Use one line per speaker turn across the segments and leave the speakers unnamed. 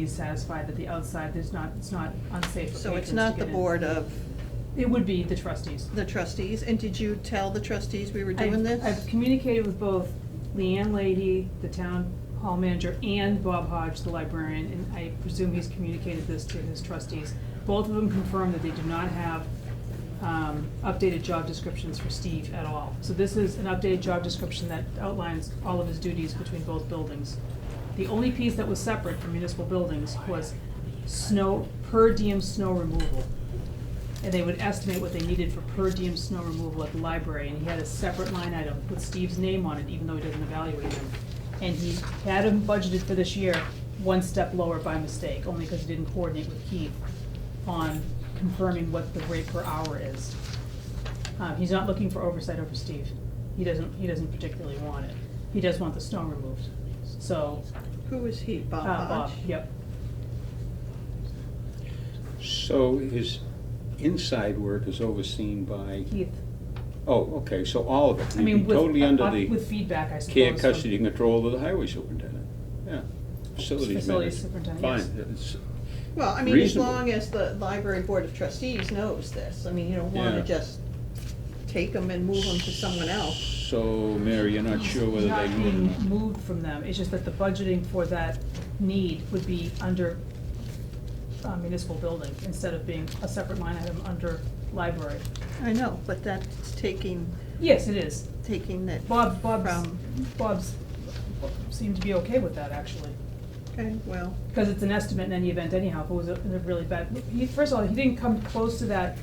He's satisfied that the outside, there's not, it's not unsafe for patrons to
So it's not the
get in.
board of
It would be the trustees.
the trustees, and did you tell the trustees we were
I've-
doing this?
I've communicated with both Leanne Lady, the town hall manager, and Bob Hodge, the librarian, and I presume he's communicated this to his trustees. Both of them confirmed that they do not have um, updated job descriptions for Steve at all. So this is an updated job description that outlines all of his duties between both buildings. The only piece that was separate from municipal buildings was snow, per diem snow removal and they would estimate what they needed for per diem snow removal at the library, and he had a separate line item with Steve's name on it, even though he doesn't evaluate them. And he had him budgeted for this year, one step lower by mistake, only because he didn't coordinate with Keith on confirming what the rate per hour is. Um, he's not looking for oversight over Steve, he doesn't, he doesn't particularly want it, he does want the snow removed, so,
Who is he,
uh,
Bob
Bob,
Hodge?
yep.
So his inside work is overseen by,
Keith,
oh, okay, so all of it.
I mean,
You'd be
with,
Totally under
uh, with
the
feedback, I suppose.
care,
from-
custody, and control of the highway superintendent, yeah. Facilities manager.
Facilities superintendent, yes.
Fine, it's-
Well, I mean, as
Reasonable.
long as the library board of trustees knows this, I mean, you don't wanna
Yeah.
just take them and move them to someone else.
So, Mary, you're not sure whether they
It's not
moved
being moved from them, it's just that the budgeting for that need would be under uh, municipal building, instead of being a separate line item under library.
I know, but that's taking,
Yes, it is.
taking that.
Bob, Bob's,
From-
Bob's seemed to be okay with that, actually.
Okay, well,
Because it's an estimate in any event anyhow, if it was a, in a really bad, he, first of all, he didn't come close to that,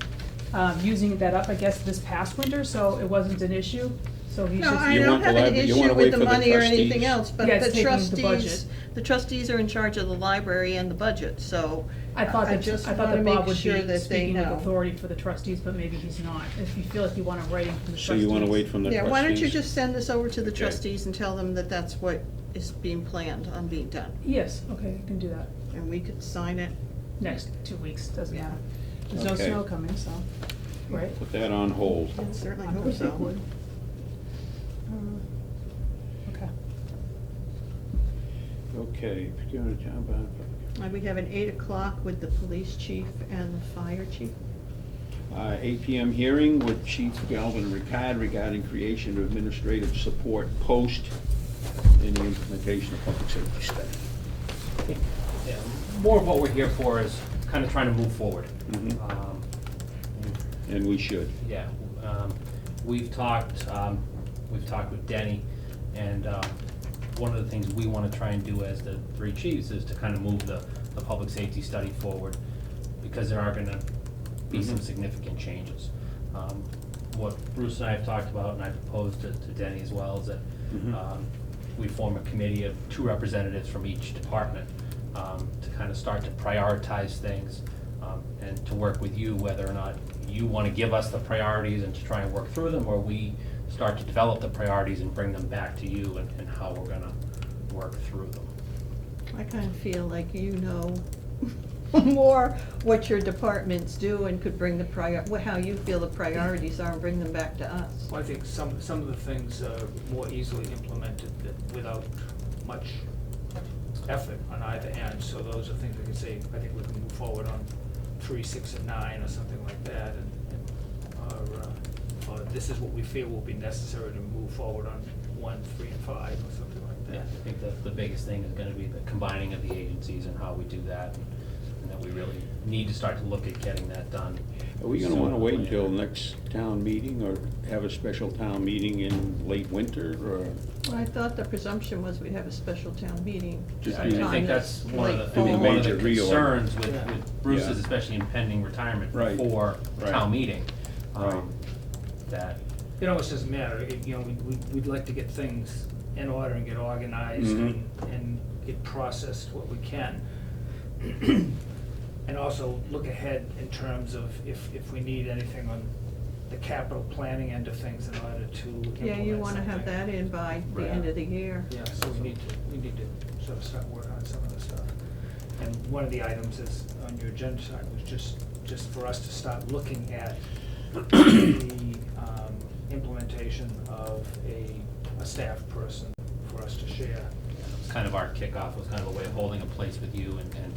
um, using that up, I guess, this past winter, so it wasn't an issue, so he's
no,
just.
I
You
don't
want the
have an
libra- you wanna
issue
wait
with the
for the
money or anything
trustees?
else, but
Yeah, it's
the
taking the
trustees, the trustees are in charge of the library and the budget, so.
I thought that,
just
I thought
wanna
that
make
Bob would
sure that
be
they
speaking with
know.
authority for the trustees, but maybe he's not. If you feel like you want to write in from the trustees.
So you wanna wait from the
Yeah,
trustees?
why don't you just send this over to the
Okay.
trustees and tell them that that's what is being planned on being done?
Yes, okay, I can do that.
And we could sign it.
Next two weeks, doesn't
Yeah.
matter. There's no
Okay.
snow coming, so, right?
Put that on hold.
I certainly
I
hope
think
so.
it would. Um,
Uh,
Okay.
Okay. particular town by-
Uh, We have an eight o'clock with the police chief and the fire chief.
Uh, eight PM hearing with Chief Galvin Ricard regarding creation of administrative support post and the implementation of public safety study.
Yeah, More of what we're here for is kind of trying to move forward.
Mhm.
Um,
And we should.
Yeah, um, we've talked, um, we've talked with Denny, and um, one of the things we want to try and do as the three chiefs is to kind of move the, the public safety study forward, because there are going to be some
Mhm.
significant changes. Um, What Bruce and I have talked about, and I proposed to to Denny as well, is that
Mhm.
um, we form a committee of two representatives from each department um, to kind of start to prioritize things um, and to work with you whether or not you want to give us the priorities and to try and work through them, or we start to develop the priorities and bring them back to you and and how we're going to work through them.
I kind of feel like you know more what your departments do and could bring the prior, wh- how you feel the priorities are and bring them back to us.
Well, I think some, some of the things are more easily implemented that without much effort on either end. So those are things we can say, I think we can move forward on three, six, and nine, or something like that. And, and, or, uh, or this is what we feel will be necessary to move forward on one, three, and five, or something like
Yeah,
that.
I think that the biggest thing is gonna be the combining of the agencies and how we do that, and and that we really need to start to look at getting that done.
Are we gonna
sooner
wanna
than
wait
later.
until next town meeting or have a special town meeting in late winter or?
Well, I thought the presumption was we'd have a special town meeting.
Just
Yeah, I-
do-
I
sometime
think that's one of
late
the, I think
fall.
one of the
Major reorg.
concerns with,
Yeah.
with Bruce's
Yeah.
especially impending retirement
Right.
before
Right.
town meeting. um,
Right.
That,
It almost doesn't matter, It- you know, we- we, we'd like to get things in order and get organized
Mhm.
and, and get processed what we can. And also look ahead in terms of if, if we need anything on the capital planning end of things in order to implement
Yeah, you wanna have
something.
that in by the
Right.
end of the year.
Yeah, so we need to, we need to sort of start working on some of the stuff. And one of the items is, on your agenda side, was just, just for us to start looking at the um, implementation of a, a staff person for us to share
kind of our kickoff, was kind of a way of holding a place with you and, and